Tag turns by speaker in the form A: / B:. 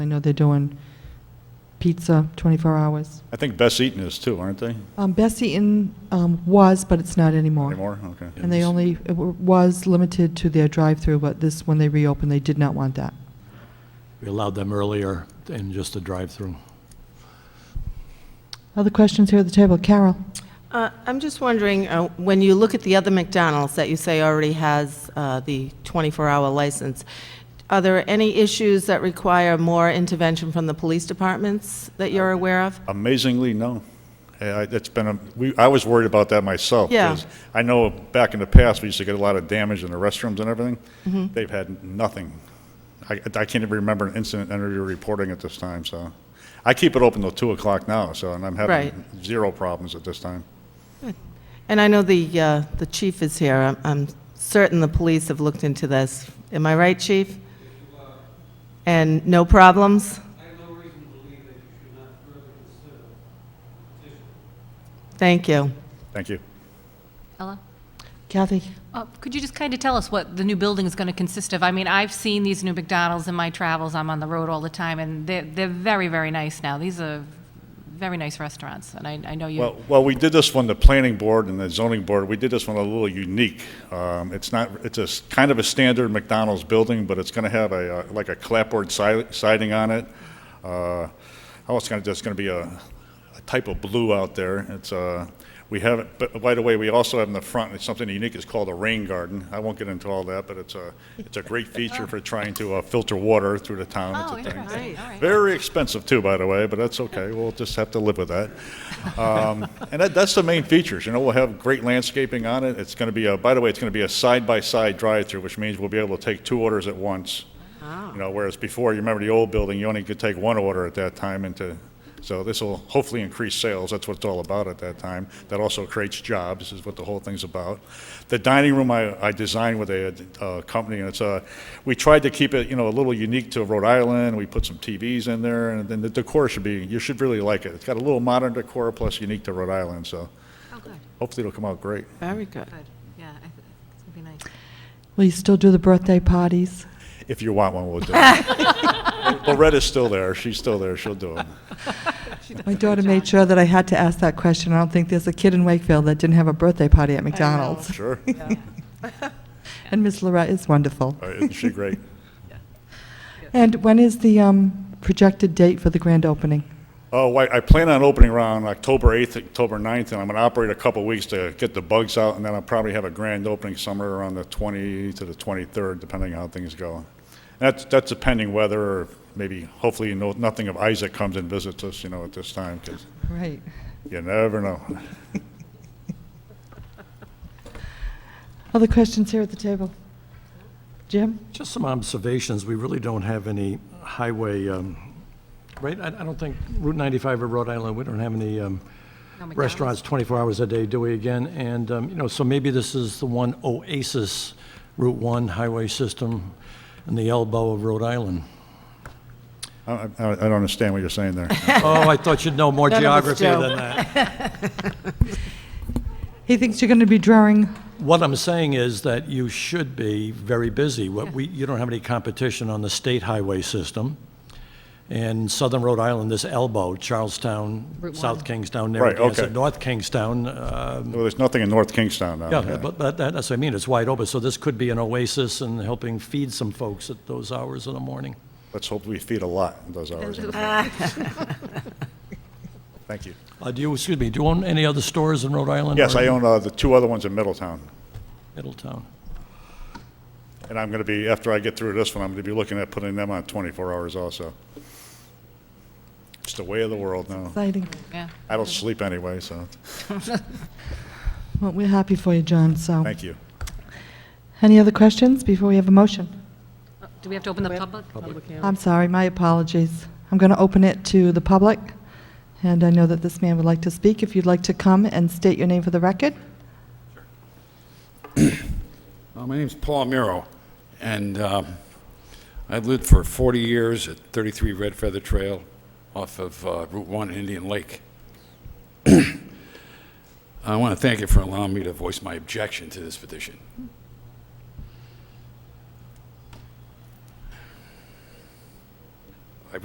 A: I know they're doing pizza 24 hours.
B: I think Best Eaton is too, aren't they?
A: Um, Best Eaton um, was, but it's not anymore.
B: Anymore? Okay.
A: And they only, it wa- was limited to their drive-through, but this, when they reopened, they did not want that.
C: We allowed them earlier in just a drive-through.
A: Other questions here at the table? Carol?
D: Uh, I'm just wondering, uh, when you look at the other McDonald's that you say already has uh, the 24-hour license, are there any issues that require more intervention from the police departments that you're aware of?
B: Amazingly, no. Yeah, I- It's been, a we, I was worried about that myself.
D: Yeah.
B: 'cause I know back in the past, we used to get a lot of damage in the restrooms and everything.
D: Mm-hmm.
B: They've had nothing. I, I can't even remember an incident under your reporting at this time, so. I keep it open till two o'clock now, so, and I'm
D: Right.
B: having zero problems at this time.
D: And I know the, uh, the chief is here. I'm- I'm certain the police have looked into this. Am I right, chief? And no problems?
E: I have no reason to believe that you should not further consider
D: Thank you.
B: Thank you.
F: Ella?
A: Kathy?
F: Uh, Could you just kind of tell us what the new building is going to consist of? I mean, I've seen these new McDonald's in my travels, I'm on the road all the time, and they're, they're very, very nice now. These are very nice restaurants, and I, I know you,
B: Well, well, we did this one, the planning board and the zoning board, we did this one a little unique. Um, It's not, it's a, s- kind of a standard McDonald's building, but it's going to have a, uh, like a clapboard si- siding on it. Uh, Oh, it's going to, there's going to be a, a type of blue out there. It's, uh, we have, it. but by the way, we also have in the front, it's something unique, it's called a rain garden. I won't get into all that, but it's a, it's a great feature for trying to uh, filter water through the town. It's
F: Oh,
B: a thing.
F: interesting. All right.
B: Very expensive too, by the way, but that's okay. We'll just have to live with that. Um, And that, that's the main features, you know, we'll have great landscaping on it. It's going to be a, by the way, it's going to be a side-by-side drive-through, which means we'll be able to take two orders at once. You know, whereas before, you remember the old building, you only could take one order at that time into, so this will hopefully increase sales. That's what it's all about at that time. That also creates jobs, is what the whole thing's about. The dining room I, I designed with a, uh company, and it's a, we tried to keep it, you know, a little unique to Rhode Island. We put some TVs in there, and then the decor should be, you should really like it. It's got a little modern decor plus unique to Rhode Island, so hopefully it'll come out great.
D: Very good.
F: Oh, yeah, I th- it's going to be nice.
A: Will you still do the birthday parties?
B: If you want one, we'll do it. Loretta's still there. She's still there. She'll do it.
A: My daughter made sure that I had to ask that question. I don't think there's a kid in Wakefield that didn't have a birthday party at McDonald's.
B: Sure.
A: And Miss Lorette is wonderful.
B: All right, Uh, Oh, Isn't she great?
A: And when is the um, projected date for the grand opening?
B: Oh, I, I plan on opening around October 8th, October 9th, and I'm going to operate a couple weeks to get the bugs out, and then I'll probably have a grand opening somewhere around the 20 to the 23rd, depending on how things go. And that's, that's depending whether, or maybe, hopefully, no, nothing of Isaac comes and visits us, you know, at this time, because
A: Right.
B: you never know.
A: Other questions here at the table? Jim?
C: Just some observations, we really don't have any highway, um, right? I I don't think Route 95 or Rhode Island, we don't have any um,
F: McDonald's.
C: restaurants 24 hours a day, do we again? And, um, you know, so maybe this is the one oasis, Route 1 highway system in the elbow of Rhode Island.
B: I, I, I don't understand what you're saying there.
C: Oh, I thought you'd know more
D: None of us
C: geography than
D: do.
C: that.
A: He thinks you're going to be drawing,
C: What I'm saying is that you should be very busy. What we, you don't have any competition on the state highway system. And southern Rhode Island, this elbow, Charlestown, South Kingstown,
B: Right,
C: Narragansett,
B: okay.
C: North Kingstown, uh,
B: Well, there's nothing in North Kingstown now.
C: yeah, but, but that- that's what I mean, it's wide open. So this could be an oasis and helping feed some folks at those hours in the morning.
B: Let's hope we feed a lot in those hours. Thank you.
C: Uh, do you, excuse me, do you own any other stores in Rhode Island?
B: Yes,
C: or
B: I
C: in
B: own, uh, the two other ones in Middletown.
C: Middletown.
B: And I'm going to be, after I get through this one, I'm going to be looking at putting them on 24 hours also. It's the way of the world now.
A: exciting.
F: Yeah.
B: I don't sleep anyway, so,
A: Well, we're happy for you, John, so.
B: thank you.
A: Any other questions before we have a motion?
F: Do we have to open the public?
A: I'm sorry, my apologies. I'm going to open it to the public, and I know that this man would like to speak. If you'd like to come and state your name for the record?
G: Uh, My name's Paul Miro, and um, I've lived for 40 years at 33 Red Feather Trail off of uh, Route 1 in Indian Lake. I want to thank you for allowing me to voice my objection to this petition.